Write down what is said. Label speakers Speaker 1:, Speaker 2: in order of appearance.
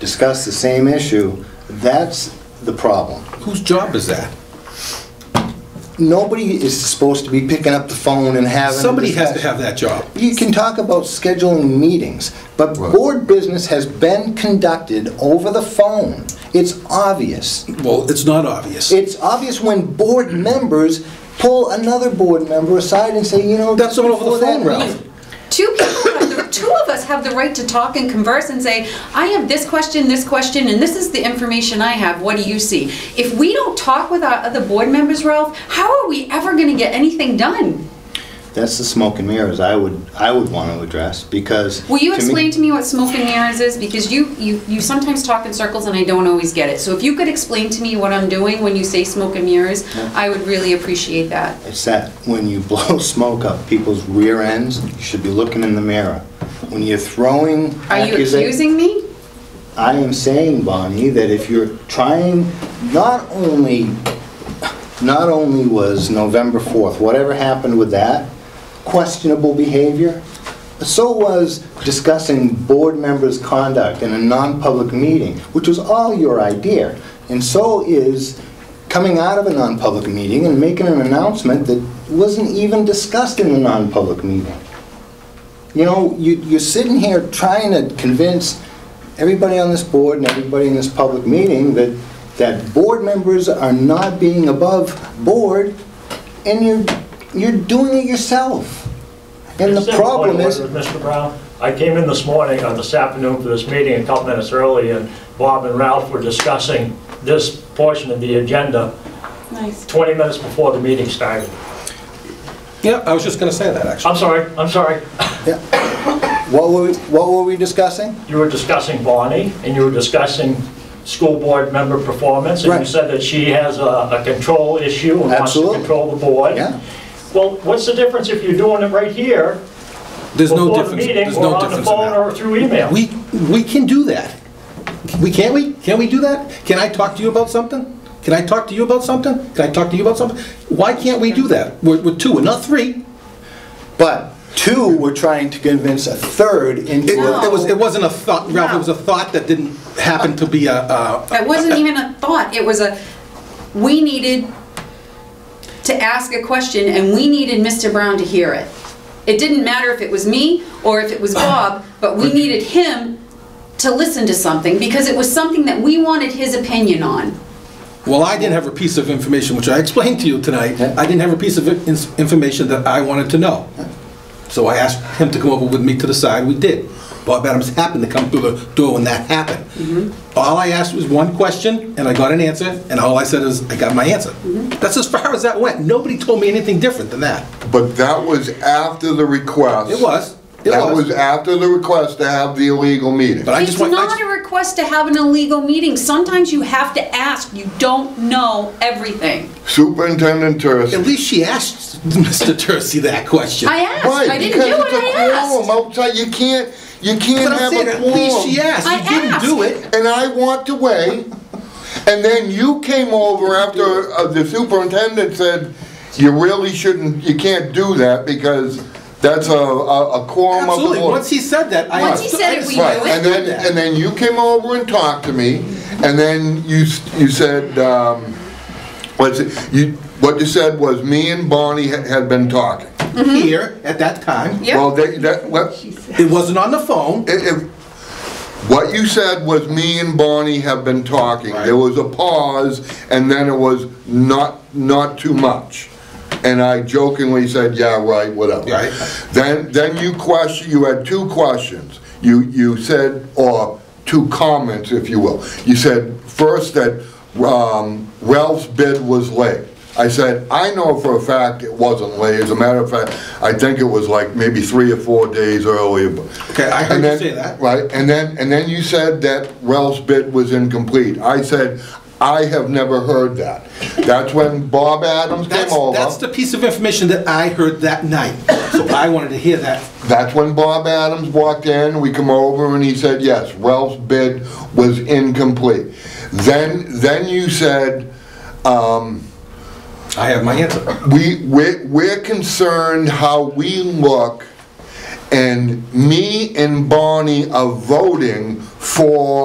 Speaker 1: discuss the same issue, that's the problem.
Speaker 2: Whose job is that?
Speaker 1: Nobody is supposed to be picking up the phone and having. a
Speaker 2: Somebody has to
Speaker 1: discussion.
Speaker 2: have that job.
Speaker 1: You can talk about scheduling meetings, but
Speaker 2: Right.
Speaker 1: board business has been conducted over the phone. It's obvious.
Speaker 2: Well, it's not obvious.
Speaker 1: It's obvious when board members pull another board member aside and say, you know.
Speaker 2: That's not over the
Speaker 1: before that
Speaker 2: phone, Ralph.
Speaker 1: meeting-
Speaker 3: Two people, have the- two of us have the right to talk and converse and say, I have this question, this question, and this is the information I have, what do you see? If we don't talk with our other board members, Ralph, how are we ever gonna get anything done?
Speaker 1: That's the smoke and mirrors I would, I would want to address because.
Speaker 3: Will you
Speaker 1: me-
Speaker 3: explain to me what smoke and mirrors is? Because you, you, you sometimes talk in circles and I don't always get it. So if you could explain to me what I'm doing when you say smoke and mirrors, I would really appreciate that.
Speaker 1: It's that when you blow smoke up people's rear ends, you should be looking in the mirror. When you're throwing.
Speaker 3: Are you
Speaker 1: accusa-
Speaker 3: accusing me?
Speaker 1: I am saying, Bonnie, that if you're trying, not only, not only was November 4th, whatever happened with that, questionable behavior, so was discussing board members' conduct in a non-public meeting, which was all your idea. And so is coming out of a non-public meeting and making an announcement that wasn't even discussed in the non-public meeting. You know, you, you're sitting here trying to convince everybody on this board and everybody in this public meeting that, that board members are not being above board, and you're, you're doing it yourself. And the
Speaker 4: Simple
Speaker 1: problem
Speaker 4: point
Speaker 1: is,
Speaker 4: with Mr. Brown, I came in this morning, on this afternoon for this meeting, a couple minutes early, and Bob and Ralph were discussing this portion of the agenda
Speaker 3: Nice.
Speaker 4: 20 minutes before the meeting started.
Speaker 2: Yeah, I was just gonna say that, actually.
Speaker 4: I'm sorry, I'm sorry.
Speaker 1: what were, we- what were we discussing?
Speaker 4: You were discussing Bonnie, and you were discussing school board member performance, and you
Speaker 1: Right.
Speaker 4: said that she has a a control issue and wants to
Speaker 1: Absolutely.
Speaker 4: control the board.
Speaker 1: Yeah.
Speaker 4: Well, what's the difference if you're doing it right here,
Speaker 2: There's no
Speaker 4: before the
Speaker 2: difference,
Speaker 4: meeting,
Speaker 2: there's
Speaker 4: or
Speaker 2: no
Speaker 4: on the
Speaker 2: difference in
Speaker 4: phone, or
Speaker 2: that.
Speaker 4: through email?
Speaker 2: We, we can do that. We, can't we? Can we do that? Can I talk to you about something? Can I talk to you about something? Can I talk to you about something? Why can't we do that? We're, we're two, we're not three.
Speaker 1: But two were trying to convince a third into
Speaker 2: It, it
Speaker 1: a...
Speaker 2: was, it wasn't a thought, Ralph, it was a thought that didn't happen to be a, a,
Speaker 3: That wasn't even a thought, it was a, we needed to ask a question and we needed Mr. Brown to hear it. It didn't matter if it was me or if it was Bob, but we needed him to listen to something because it was something that we wanted his opinion on.
Speaker 2: Well, I didn't have a piece of information, which I explained to you tonight.
Speaker 1: Yeah.
Speaker 2: I didn't have a piece of in- information that I wanted to know. So I asked him to come over with me to the side, we did. Bob Adams happened to come through the door when that happened.
Speaker 3: Mm-hmm.
Speaker 2: All I asked was one question, and I got an answer, and all I said is, I got my answer.
Speaker 3: Mm-hmm.
Speaker 2: That's as far as that went. Nobody told me anything different than that.
Speaker 5: But that was after the request.
Speaker 2: It was. It
Speaker 5: That
Speaker 2: was.
Speaker 5: was after the request to have the illegal meeting.
Speaker 2: But I
Speaker 3: It's
Speaker 2: just want, I
Speaker 3: not
Speaker 2: just-
Speaker 3: a request to have an illegal meeting, sometimes you have to ask, you don't know everything.
Speaker 5: Superintendent Tursi.
Speaker 2: at least she asked Mr. Tursi that question.
Speaker 3: I asked,
Speaker 5: Right,
Speaker 3: I didn't do
Speaker 5: because
Speaker 3: it,
Speaker 5: it's a
Speaker 3: I asked.
Speaker 5: quorum Outside, you can't, you
Speaker 2: But
Speaker 5: can't
Speaker 2: I'm
Speaker 5: have
Speaker 2: saying,
Speaker 5: a
Speaker 2: at least she
Speaker 5: quorum.
Speaker 2: asked,
Speaker 3: I
Speaker 2: you didn't do
Speaker 3: asked.
Speaker 2: it.
Speaker 5: And I walked away, and then you came over after uh, the superintendent said, you really shouldn't, you can't do that because that's a, a a quorum of the
Speaker 2: Absolutely,
Speaker 5: board.
Speaker 2: once he said that, I.
Speaker 3: Once he
Speaker 2: understood-
Speaker 3: said
Speaker 2: I
Speaker 3: it, we
Speaker 2: understood
Speaker 3: knew
Speaker 5: Right,
Speaker 3: it.
Speaker 5: and then, and then you came over and talked to me, and then you, s- you said, um, what's it, you, what you said was me and Bonnie had- had been talking.
Speaker 2: Here, at that time.
Speaker 3: Yep.
Speaker 5: Well, that, that, what,
Speaker 2: It wasn't on the phone.
Speaker 5: it- it- what you said was me and Bonnie have been talking.
Speaker 2: Right.
Speaker 5: There was a pause, and then it was not, not too much. And I jokingly said, yeah, right, whatever.
Speaker 2: Right.
Speaker 5: Then, then you question, you had two questions. You, you said, or two comments, if you will. You said, first, that um, Ralph's bid was late. I said, I know for a fact it wasn't late. As a matter of fact, I think it was like maybe three or four days earlier.
Speaker 2: Okay, I heard
Speaker 5: And
Speaker 2: you
Speaker 5: then-
Speaker 2: say that.
Speaker 5: Right, and then, and then you said that Ralph's bid was incomplete. I said, I have never heard that. That's when Bob Adams came
Speaker 2: That's,
Speaker 5: over.
Speaker 2: that's the piece of information that I heard that night. So I wanted to hear that.
Speaker 5: That's when Bob Adams walked in, we come over, and he said, yes, Ralph's bid was incomplete. Then, then you said, um,
Speaker 2: I have my answer.
Speaker 5: we, we're, we're concerned how we look, and me and Bonnie are voting for